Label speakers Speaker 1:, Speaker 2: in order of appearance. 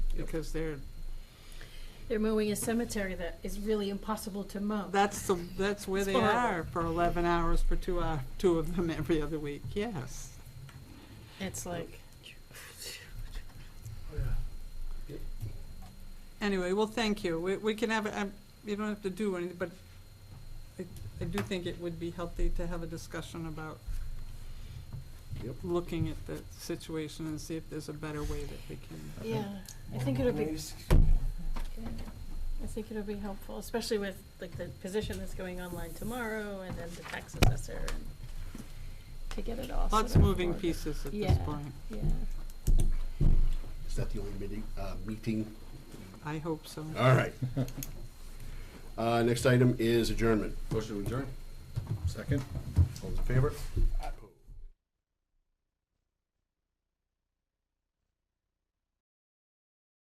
Speaker 1: because they're,
Speaker 2: They're mowing a cemetery that is really impossible to mow.
Speaker 1: that's the, that's where
Speaker 2: It's
Speaker 1: they
Speaker 2: horrible.
Speaker 1: are for eleven hours for two hour, two of them every other week, yes.
Speaker 2: It's like,
Speaker 1: Anyway, well, thank you. We, we can have, a- um, you don't have to do anything, but I, I do think it would be healthy to have a discussion about
Speaker 3: Yep.
Speaker 1: looking at the situation and see if there's a better way that we can.
Speaker 2: yeah, I think it'll be, I think it'll be helpful, especially with like the position that's going online tomorrow and then the tax assessor and to get it all. sort
Speaker 1: Lots
Speaker 2: of
Speaker 1: of moving
Speaker 2: ordered.
Speaker 1: pieces at this
Speaker 2: Yeah.
Speaker 1: point.
Speaker 2: Yeah,
Speaker 3: Is that the only meeting, uh, meeting?
Speaker 1: I hope so.
Speaker 3: All right. Uh, next item is adjournment.
Speaker 4: Motion to adjourn.
Speaker 3: Second. All those in favor?